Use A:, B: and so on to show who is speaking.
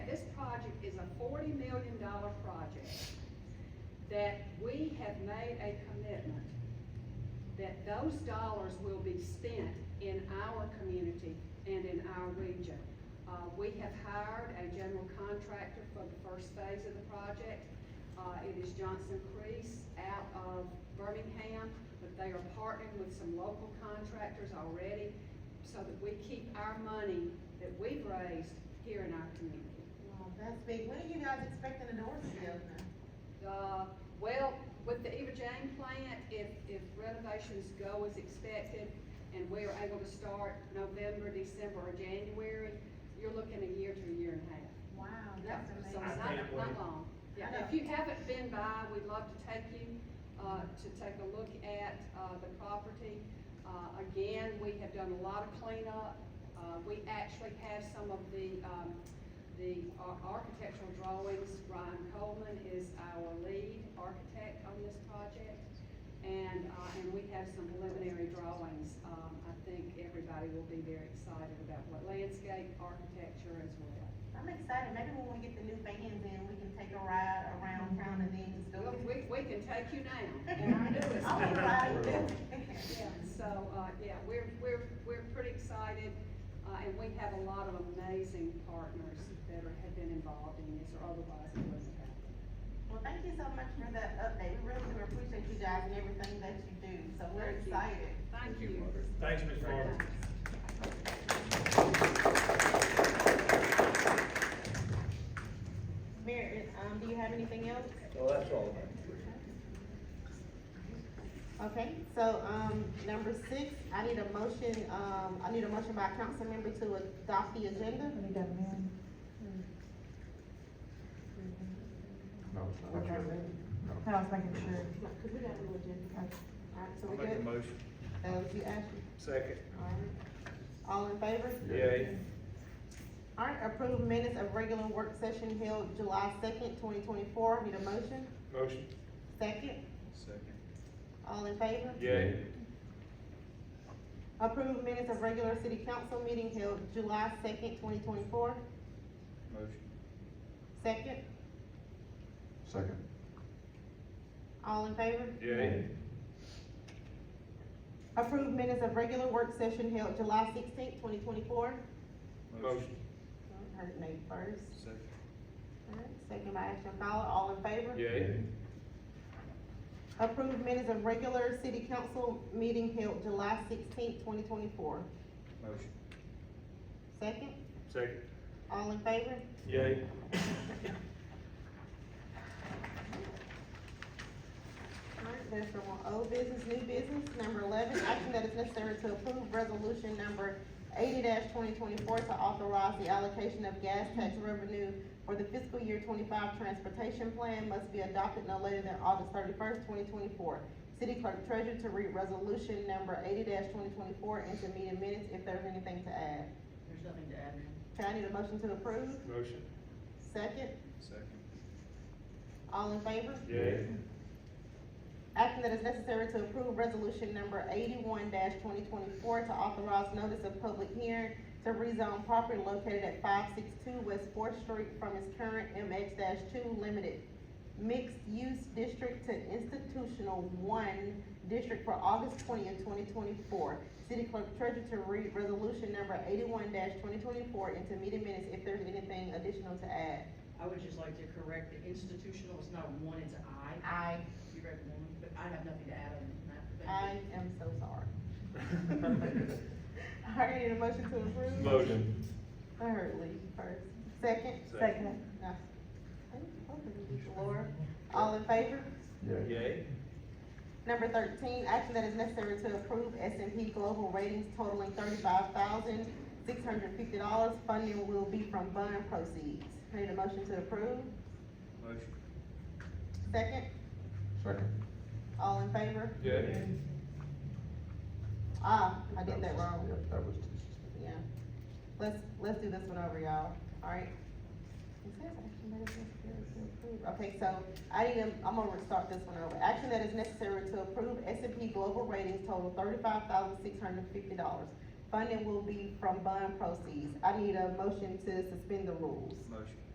A: forty million dollar project that we have made a commitment that those dollars will be spent in our community and in our region. Uh, we have hired a general contractor for the first phase of the project. Uh, it is Johnson Crease out of Birmingham, but they are partnering with some local contractors already so that we keep our money that we've raised here in our community.
B: Well, that's big. When are you guys expecting the doors to be open?
A: Uh, well, with the Eva Jane plant, if, if renovations go as expected and we are able to start November, December, or January, you're looking a year to a year and a half.
B: Wow,
A: That's,
B: that's
A: so
B: amazing.
A: it's
C: I
A: not,
C: can't
A: not
C: wait.
A: long. Yeah,
B: I
A: if
B: know.
A: you haven't been by, we'd love to take you, uh, to take a look at, uh, the property. Uh, again, we have done a lot of cleanup. Uh, we actually have some of the, um, the ar- architectural drawings. Ryan Coleman is our lead architect on this project. And, uh, and we have some preliminary drawings. Um, I think everybody will be very excited about what landscape, architecture as well.
B: I'm excited. Maybe when we get the new vans in, we can take a ride around town and then just go.
A: Well, We, we can take you now, and I knew it.
B: I'll be riding.
A: Yeah, so, uh, yeah, we're, we're, we're pretty excited, uh, and we have a lot of amazing partners that are, have been involved in this or otherwise it wouldn't have happened.
B: Well, thank you so much for that update. We really do appreciate you guys and everything that you do, so we're
A: Thank you.
B: excited.
A: Thank you.
C: Thanks, Ms. Farmer.
A: Thanks.
B: Mayor, um, do you have anything else?
D: Well, that's all.
B: Okay, so, um, number six, I need a motion, um, I need a motion by a council member to adopt the agenda.
E: We got Mary.
F: No, it's not.
E: Okay. I was making sure.
B: Cause we got a little agenda.
E: Okay.
B: Alright, so
C: I'll
B: we
C: make a
B: good?
C: motion.
B: That was you, Ashley?
C: Second.
B: Alright. All in favor?
C: Yay.
B: Alright, approved minutes of regular work session held July second, twenty twenty-four, need a motion?
C: Motion.
B: Second,
C: Second.
B: all in favor?
C: Yay.
B: Approved minutes of regular city council meeting held July second, twenty twenty-four,
C: Motion.
B: second,
F: Second.
B: all in favor?
C: Yay.
B: Approved minutes of regular work session held July sixteenth, twenty twenty-four.
C: Motion.
B: Heard Nate first,
C: Second.
B: alright, second by Ashton Fowler, all in favor?
C: Yay.
B: Approved minutes of regular city council meeting held July sixteenth, twenty twenty-four,
C: Motion.
B: second,
C: Second.
B: all in favor?
C: Yay.
B: Alright, there's from old business, new business, number eleven, action that is necessary to approve resolution number eighty twenty twenty-four to authorize the allocation of gas tax revenue for the fiscal year twenty-five transportation plan must be adopted no later than August thirty-first, twenty twenty-four. City clerk treasurer to read resolution number eighty twenty twenty-four into meeting minutes if there's anything to add.
E: There's nothing to add now.
B: Can I need a motion to approve?
C: Motion.
B: Second,
C: Second.
B: all in favor?
C: Yay.
B: Action that is necessary to approve resolution number eighty-one twenty twenty-four to authorize notice of public hearing to rezone property located at five six two West Fourth Street from its current MX two limited mixed-use district to institutional one district for August twentieth, twenty twenty-four. City clerk treasurer to read resolution number eighty-one twenty twenty-four into meeting minutes if there's anything additional to add.
E: I would just like to correct, the institutional is not one, it's I.
B: I,
E: You read one, but I have nothing to add on that. Thank
B: I am
E: you.
B: so sorry. I need a motion to approve.
C: Motion.
B: I heard Lee first. Second?
C: Second.
B: No. Laura, all in favor?
F: Yay.
C: Yay.
B: Number thirteen, action that is necessary to approve S and P Global Ratings totaling thirty-five thousand, six hundred fifty dollars. Funding will be from bond proceeds. I Need a motion to approve?
C: Motion.
B: Second?
F: Second.
B: All in favor?
C: Yay.
B: Ah, I did that wrong.
F: Yep, that was just.
B: Yeah. Let's, let's do this one over, y'all, alright? It says action that is necessary to approve. Okay, so I need, to- I'm gonna start this one over. Action that is necessary to approve S and P Global Ratings total thirty-five thousand six hundred fifty dollars. Funding will be from bond proceeds. I need a motion to suspend the rules.
C: Motion.